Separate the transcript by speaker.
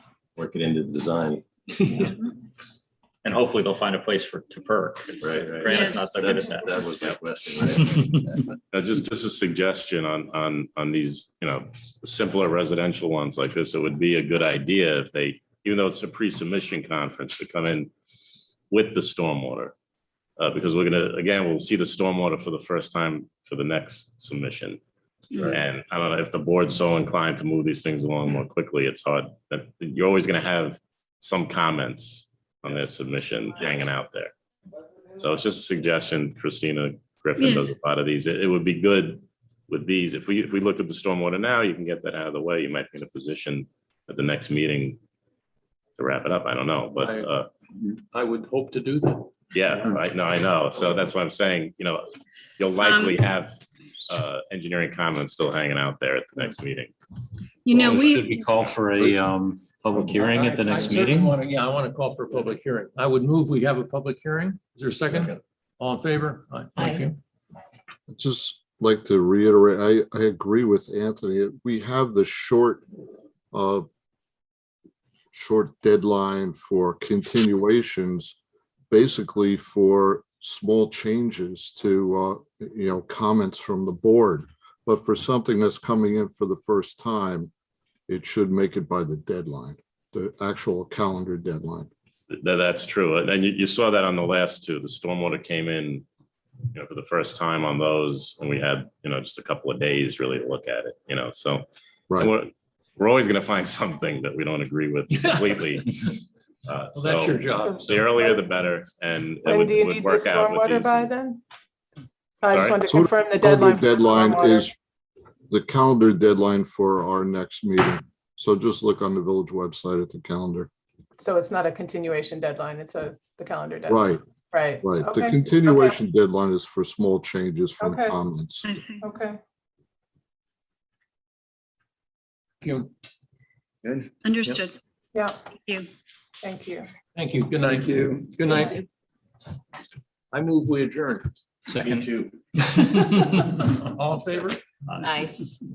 Speaker 1: work it into the design.
Speaker 2: And hopefully they'll find a place for, to perk. It's-
Speaker 1: Right, right.
Speaker 2: Granite's not so good
Speaker 1: That's-
Speaker 2: at that.
Speaker 1: That was my question, right?
Speaker 3: Uh, just, just a suggestion on, on, on these, you know, simpler residential ones like this, it would be a good idea if they, even though it's a pre-submission conference, to come in with the stormwater. Uh, because we're gonna, again, we'll see the stormwater for the first time for the next submission.
Speaker 1: Right.
Speaker 3: And I don't know, if the board's so inclined to move these things along more quickly, it's hard, but you're always gonna have some comments on their submission hanging out there. So it's just a suggestion, Christina Griffin
Speaker 4: Yes.
Speaker 3: does a lot of these. It it would be good with these, if we, if we looked at the stormwater now, you can get that out of the way. You might be in a position at the next meeting to wrap it up. I don't know, but,
Speaker 5: Right.
Speaker 3: uh,
Speaker 5: I would hope to do that.
Speaker 3: yeah, right, no, I know. So that's what I'm saying, you know, you'll likely have, uh, engineering comments still hanging out there at the
Speaker 5: Mm.
Speaker 3: next meeting.
Speaker 4: You know,
Speaker 6: Well,
Speaker 4: we,
Speaker 6: Should we call for a um public hearing at the
Speaker 5: I- I
Speaker 6: next
Speaker 5: certainly
Speaker 6: meeting?
Speaker 5: wanna- Yeah, I want to call for a public hearing. I would move we have a public hearing. Is there a second? All in favor? Aye, Thank you.
Speaker 7: I'd just like to reiterate, I, I agree with Anthony. We have the short, uh, short deadline for continuations, basically for small changes to, uh, you know, comments from the board. But for something that's coming in for the first time, it should make it by the deadline, the actual calendar deadline.
Speaker 3: That, that's true. And then you, you saw that on the last two, the stormwater came in, you know, for the first time on those, and we had, you know, just a couple of days really to look at it, you know, so.
Speaker 7: Right.
Speaker 3: We're, we're always gonna find something that we don't agree with completely. Uh,
Speaker 5: Well, that's your
Speaker 3: so
Speaker 5: job.
Speaker 3: the earlier the better, and it
Speaker 8: When
Speaker 3: would,
Speaker 8: do you
Speaker 3: would
Speaker 8: need the
Speaker 3: work out with
Speaker 8: stormwater
Speaker 3: these.
Speaker 8: by then? I
Speaker 3: Sorry?
Speaker 8: just wanted to
Speaker 7: So the
Speaker 8: confirm the
Speaker 7: calendar
Speaker 8: deadline. for the
Speaker 7: deadline
Speaker 8: stormwater.
Speaker 7: is the calendar deadline for our next meeting. So just look on the village website at the calendar.
Speaker 8: So it's not a continuation deadline, it's a, the calendar deadline,
Speaker 7: Right,
Speaker 8: right?
Speaker 7: right. The
Speaker 8: Okay,
Speaker 7: continuation deadline is for small changes from
Speaker 8: Okay.
Speaker 7: comments.
Speaker 4: I see.
Speaker 8: Okay,
Speaker 1: Good.
Speaker 4: understood.
Speaker 8: yeah,
Speaker 4: Thank you.
Speaker 8: thank you.
Speaker 5: Thank you. Good night. Thank you. Good night. I move we adjourn.
Speaker 6: Second.
Speaker 5: All in favor?
Speaker 2: Uh,
Speaker 4: Aye.